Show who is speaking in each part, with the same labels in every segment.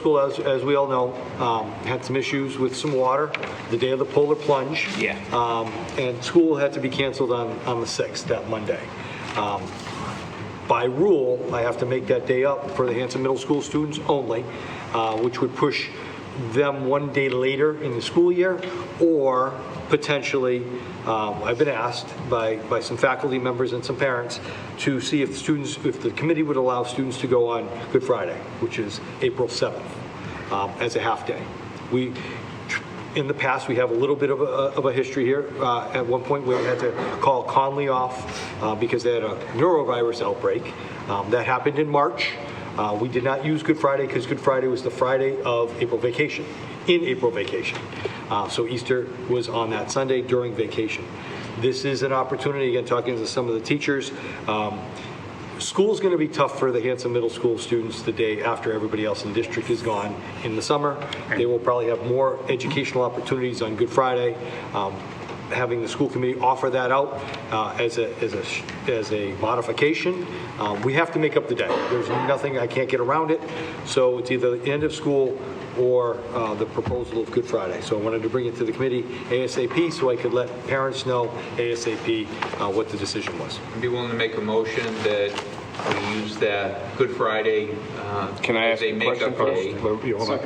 Speaker 1: School, as, as we all know, um, had some issues with some water the day of the polar plunge.
Speaker 2: Yeah.
Speaker 1: Um, And school had to be canceled on, on the 6th, that Monday. Um, By rule, I have to make that day up for the Hanson Middle School students only, uh, which would push them one day later in the school year, or potentially, um, I've been asked by, by some faculty members and some parents to see if the students, if the committee would allow students to go on Good Friday, which is April 7th um, as a half-day. We, in the past, we have a little bit of a, of a history here. Uh, At one point, we had to call Conley off uh, because they had a neurovirus outbreak. Um, That happened in March. Uh, We did not use Good Friday because Good Friday was the Friday of April vacation, in April vacation. Uh, So Easter was on that Sunday during vacation. This is an opportunity, again, talking to some of the teachers, um, School's going to be tough for the Hanson Middle School students the day after everybody else in the district is gone in the summer. They will probably have more educational opportunities on Good Friday. Um, Having the school committee offer that out uh, as a, as a, sh- as a modification, uh, we have to make up the day. There's nothing, I can't get around it. So it's either the end of school or uh, the proposal of Good Friday. So I wanted to bring it to the committee ASAP so I could let parents know ASAP uh, what the decision was.
Speaker 3: I'd be willing to make a motion that we use that Good Friday uh,
Speaker 4: Can I
Speaker 3: as
Speaker 4: ask
Speaker 3: a
Speaker 4: a question
Speaker 3: makeup day,
Speaker 4: first? Well, yeah, hold on.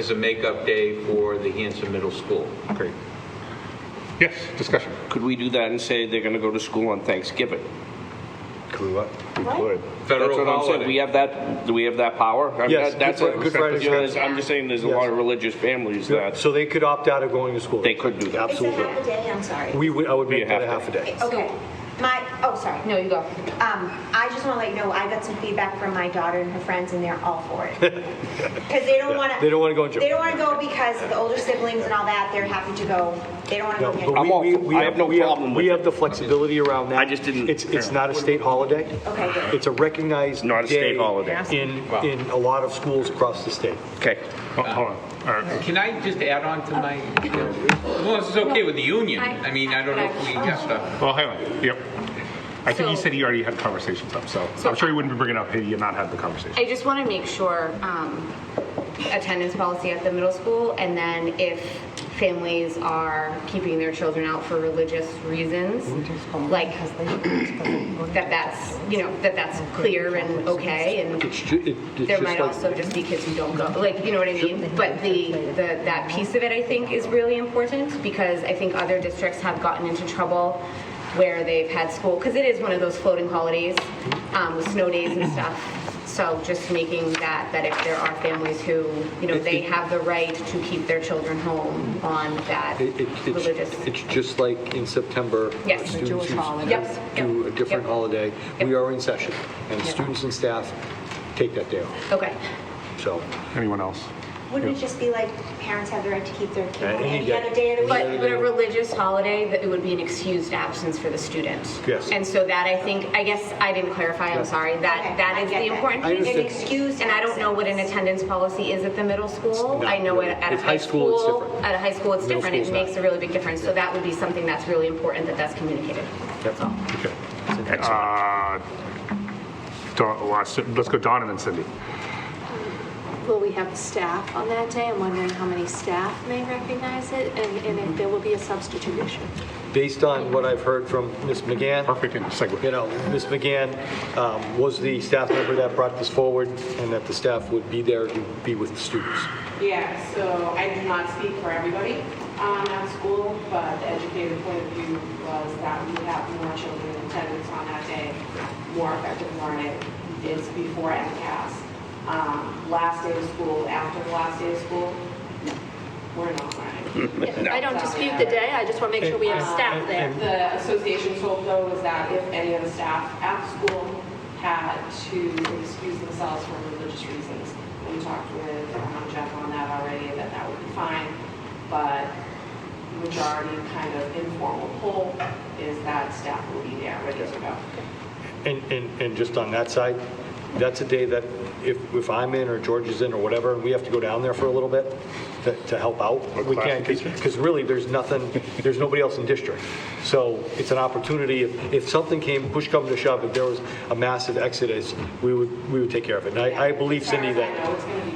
Speaker 3: as a makeup day for the Hanson Middle School.
Speaker 4: Great. Yes, discussion.
Speaker 2: Could we do that and say they're going to go to school on Thanksgiving?
Speaker 4: Could we what? We
Speaker 5: What?
Speaker 4: could.
Speaker 3: Federal
Speaker 2: That's what I'm saying, we
Speaker 3: holiday.
Speaker 2: have that, do we have that power? I mean,
Speaker 1: Yes,
Speaker 2: that- that's
Speaker 1: Good
Speaker 2: a-
Speaker 1: Fri- Good Friday's
Speaker 2: you know,
Speaker 1: good.
Speaker 2: I'm just saying, there's a lot of religious families that,
Speaker 1: So they could opt out of going to school.
Speaker 2: they could do that.
Speaker 5: It's a half a
Speaker 1: Absolutely.
Speaker 5: day, I'm sorry.
Speaker 1: We would, I would make
Speaker 2: Be a
Speaker 1: that a half
Speaker 2: half
Speaker 1: a day.
Speaker 5: Okay, my, oh, sorry.
Speaker 6: No, you go.
Speaker 5: Um, I just want to let you know, I got some feedback from my daughter and her friends, and they're all for it. Because they don't want to.
Speaker 1: They don't wanna go in gym.
Speaker 5: They don't want to go because the older siblings and all that, they're happy to go. They don't want to
Speaker 1: No,
Speaker 5: go.
Speaker 1: but
Speaker 5: get-
Speaker 2: I'm
Speaker 1: we-
Speaker 2: all
Speaker 1: we-
Speaker 2: for-
Speaker 1: we
Speaker 2: I have no
Speaker 1: we
Speaker 2: problem
Speaker 1: We
Speaker 2: with
Speaker 1: have the flexibility around that.
Speaker 2: I just didn't-
Speaker 1: It's, it's not a state holiday.
Speaker 5: Okay, good.
Speaker 1: It's a recognized
Speaker 2: Not a state
Speaker 1: day
Speaker 2: holiday.
Speaker 1: In, in a lot of schools across the state.
Speaker 2: Okay.
Speaker 4: Oh, Hold on. All right.
Speaker 3: Can I just add on to my, well, this is okay with the union. I mean, I don't know if we have to,
Speaker 4: Well, hang on. Yep. I think he
Speaker 6: So-
Speaker 4: said he already had conversations up, so
Speaker 6: So-
Speaker 4: I'm sure he wouldn't be bringing up had you not had the conversation.
Speaker 6: I just want to make sure um, attendance policy at the middle school, and then if families are keeping their children out for religious reasons, like that that's you know that that's clear and okay, and
Speaker 1: It's ju- it- it's
Speaker 6: there
Speaker 1: just
Speaker 6: might
Speaker 1: like-
Speaker 6: also just be kids who don't go, like you know what I mean. But the, the that piece of it I think is really important because I think other districts have gotten into trouble where they've had school because it is one of those floating holidays
Speaker 1: Mm-hmm.
Speaker 6: um, with snow days and stuff. So just making that that if there are families who you know they have the right to keep their children home on that
Speaker 1: It- it- it's-
Speaker 6: religious.
Speaker 1: It's just like in September.
Speaker 6: Yes.
Speaker 1: uh,
Speaker 6: The
Speaker 1: students
Speaker 6: Jewish
Speaker 1: who
Speaker 6: holiday.
Speaker 1: s-
Speaker 6: Yep,
Speaker 1: Do a
Speaker 6: yep,
Speaker 1: different
Speaker 6: yep.
Speaker 1: holiday. We
Speaker 6: Yep.
Speaker 1: are in session, and students and staff take that day off,
Speaker 6: okay.
Speaker 1: so.
Speaker 4: Anyone else?
Speaker 5: Wouldn't it just be like, parents have the right to keep their kid
Speaker 1: Uh,
Speaker 5: home
Speaker 1: any
Speaker 5: any
Speaker 1: day.
Speaker 5: other day of the week?
Speaker 6: But, but a religious holiday, that it would be an excused absence for the student.
Speaker 1: Yes.
Speaker 6: And so that I think, I guess I didn't clarify, I'm sorry,
Speaker 5: Okay,
Speaker 6: that, that
Speaker 5: I
Speaker 6: is
Speaker 5: get
Speaker 6: the
Speaker 5: that.
Speaker 6: important
Speaker 1: I
Speaker 6: piece.
Speaker 1: understand.
Speaker 5: An excused
Speaker 6: And I don't know what an
Speaker 5: absence.
Speaker 6: attendance policy is at the middle school.
Speaker 1: No,
Speaker 6: I know
Speaker 1: no.
Speaker 6: it at a
Speaker 1: At
Speaker 6: high school.
Speaker 1: it's different.
Speaker 6: At a high school, it's
Speaker 1: Middle
Speaker 6: different, it
Speaker 1: school's not.
Speaker 6: makes a really big difference. So that would be something that's really important that that's communicated. That's all.
Speaker 4: Okay. Uh, Don, let's let's go Don and then Cindy.
Speaker 7: Will we have staff on that day? I'm wondering how many staff may recognize it and and if there will be a substitution.
Speaker 1: Based on what I've heard from Ms. McGann,
Speaker 4: Perfect segue.
Speaker 1: you know, Ms. McGann um, was the staff member that brought this forward, and that the staff would be there to be with the students.
Speaker 8: Yeah, so I do not speak for everybody um, at school, but the educated point of view was that we have more children in attendance on that day, more effective learning. It's before MCAS. Um, Last day of school, after the last day of school, we're not learning.
Speaker 7: I don't dispute the day, I just want to make sure we have staff there.
Speaker 8: The association's hope, though, was that if any of the staff at school had to excuse themselves for religious reasons, we talked with um, Jeff on that already, that that would be fine, but majority kind of informal poll is that staff will be there, ready to go.
Speaker 1: And, and, and just on that side, that's a day that if, if I'm in or George is in or whatever, and we have to go down there for a little bit to, to help out,
Speaker 4: Or
Speaker 1: we
Speaker 4: class
Speaker 1: can't,
Speaker 4: teacher.
Speaker 1: because really, there's nothing, there's nobody else in district. So it's an opportunity, if, if something came, push come to shove, if there was a massive exodus, we would, we would take care of it. And I, I believe Cindy
Speaker 8: As far as I
Speaker 1: that,
Speaker 8: know, it's going to be